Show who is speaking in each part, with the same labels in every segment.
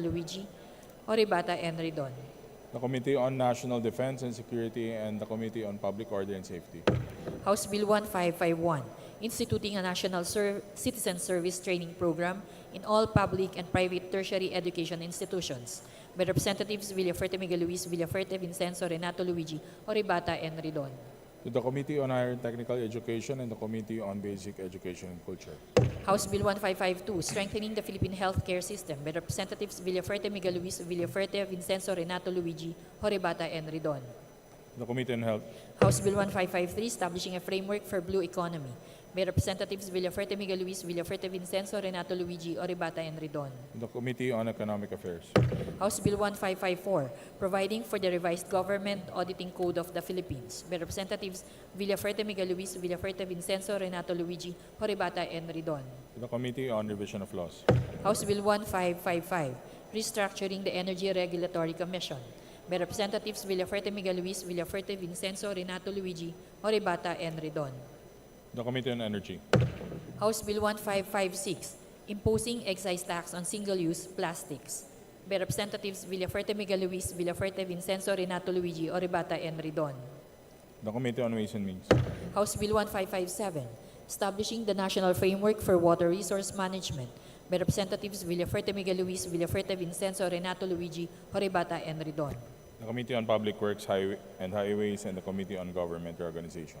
Speaker 1: Bartoluigi, Oribata Henry Don.
Speaker 2: the Committee on National Defense and Security, and the Committee on Public Order and Safety.
Speaker 1: House Bill 1551, instituting a national Ser- citizen service training program in all public and private tertiary education institutions by Representatives Villaferte Miguel Luis, Villaferte Vincenzo, Renato Luigi, Oribata Henry Don.
Speaker 2: To the Committee on Higher and Technical Education and the Committee on Basic Education and Culture.
Speaker 1: House Bill 1552, Strengthening the Philippine Healthcare System by Representatives Villaferte Miguel Luis, Villaferte Vincenzo, Renato Luigi, Horibata, and Ridon.
Speaker 2: To The Committee on Health.
Speaker 1: House Bill 1553, Establishing a Framework for Blue Economy by Representatives Villaferte Miguel Luis, Villaferte Vincenzo, Renato Luigi, Horibata, and Ridon.
Speaker 2: To The Committee on Economic Affairs.
Speaker 1: House Bill 1554, Providing for the Revised Government Auditing Code of the Philippines by Representatives Villaferte Miguel Luis, Villaferte Vincenzo, Renato Luigi, Horibata, and Ridon.
Speaker 2: To The Committee on Revision of Laws.
Speaker 1: House Bill 1555, Restructuring the Energy Regulatory Commission by Representatives Villaferte Miguel Luis, Villaferte Vincenzo, Renato Luigi, Oribata, and Redon.
Speaker 2: To The Committee on Energy.
Speaker 1: House Bill 1556, Imposing Excise Tax on Single-Use Plastics by Representatives Villaferte Miguel Luis, Villaferte Vincenzo, Renato Luigi, Oribata, and Redon.
Speaker 2: To The Committee on Ways and Means.
Speaker 1: House Bill 1557, Establishing the National Framework for Water Resource Management by Representatives Villaferte Miguel Luis, Villaferte Vincenzo, Renato Luigi, Horibata, and Ridon.
Speaker 2: To The Committee on Public Works Highway- and Highways and the Committee on Government Reorganization.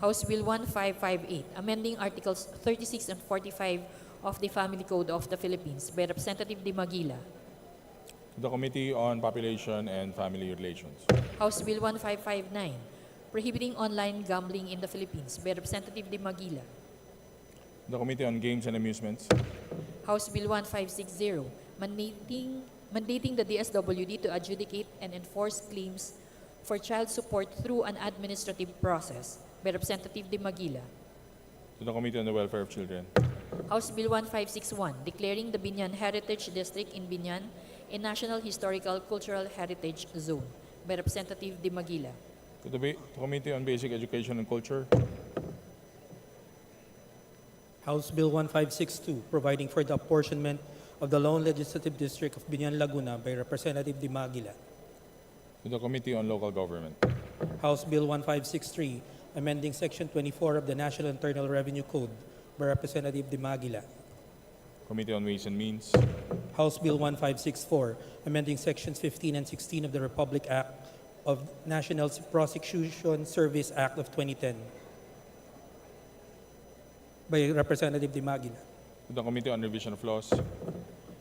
Speaker 1: House Bill 1558, Amending Articles 36 and 45 of the Family Code of the Philippines by Representative De Maguila.
Speaker 2: To The Committee on Population and Family Relations.
Speaker 1: House Bill 1559, Prohibiting Online Gambling in the Philippines by Representative De Maguila.
Speaker 2: To The Committee on Games and Amusements.
Speaker 1: House Bill 1560, mandating, mandating the DSWD to adjudicate and enforce claims for child support through an administrative process by Representative De Maguila.
Speaker 2: To The Committee on the Welfare of Children.
Speaker 1: House Bill 1561, declaring the Binyan Heritage District in Binyan a National Historical Cultural Heritage Zone by Representative De Maguila.
Speaker 2: To the Ba- to Committee on Basic Education and Culture.
Speaker 3: House Bill 1562, providing for the apportionment of the lone legislative district of Binian Laguna by Representative De Maguila.
Speaker 2: To the Committee on Local Government.
Speaker 3: House Bill 1563, amending Section 24 of the National Internal Revenue Code by Representative De Maguila.
Speaker 2: Committee on Ways and Means.
Speaker 3: House Bill 1564, amending Sections 15 and 16 of the Republic Act of National Prosecution Service Act of 2010 by Representative De Maguila.
Speaker 2: To the Committee on Revision of Laws.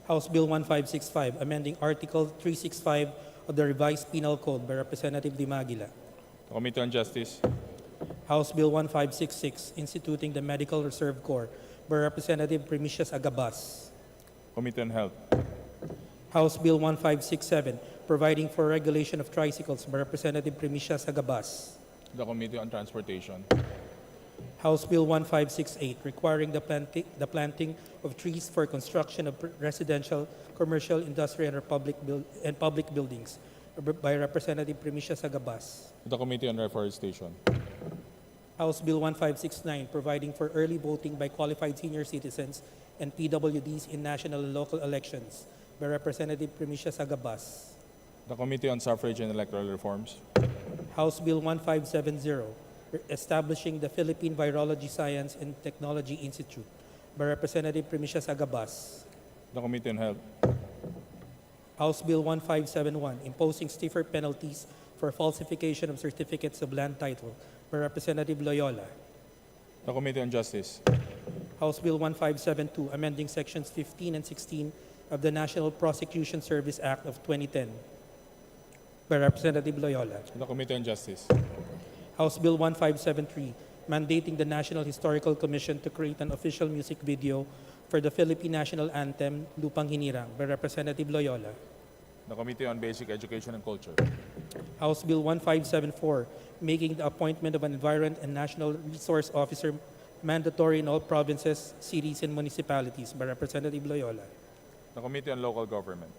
Speaker 3: House Bill 1565, amending Article 365 of the Revised Penal Code by Representative De Maguila.
Speaker 2: The Committee on Justice.
Speaker 3: House Bill 1566, instituting the Medical Reserve Corps by Representative Primicius Agabas.
Speaker 2: Committee on Health.
Speaker 3: House Bill 1567, providing for regulation of tricycles by Representative Primicius Agabas.
Speaker 2: The Committee on Transportation.
Speaker 3: House Bill 1568, requiring the planting, the planting of trees for construction of residential, commercial, industrial, and public, buil- and public buildings by Representative Primicius Agabas.
Speaker 2: The Committee on Reforestation.
Speaker 3: House Bill 1569, providing for early voting by qualified senior citizens and PWDs in national and local elections by Representative Primicia Sagabas.
Speaker 2: The Committee on Suffrage and Electoral Reforms.
Speaker 3: House Bill 1570, re- establishing the Philippine Virology Science and Technology Institute by Representative Primicia Sagabas.
Speaker 2: The Committee on Health.
Speaker 3: House Bill 1571, imposing stiffer penalties for falsification of certificates of land title by Representative Loyola.
Speaker 2: The Committee on Justice.
Speaker 3: House Bill 1572, amending Sections 15 and 16 of the National Prosecution Service Act of 2010 by Representative Loyola.
Speaker 2: The Committee on Justice.
Speaker 3: House Bill 1573, mandating the National Historical Commission to create an official music video for the Philippine National Anthem, Lupang Hinirang, by Representative Loyola.
Speaker 2: The Committee on Basic Education and Culture.
Speaker 3: House Bill 1574, making the appointment of an Environment and National Resource Officer mandatory in all provinces, cities, and municipalities by Representative Loyola.
Speaker 2: The Committee on Local Government.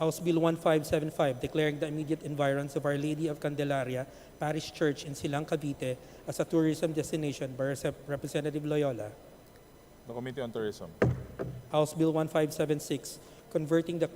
Speaker 3: House Bill 1575 declaring the immediate environs of Our Lady of Candelaria Parish Church in Silang, Cavite as a tourism destination by Rep- Representative Loyola.
Speaker 2: The Committee on Tourism.
Speaker 3: House Bill 1576 converting the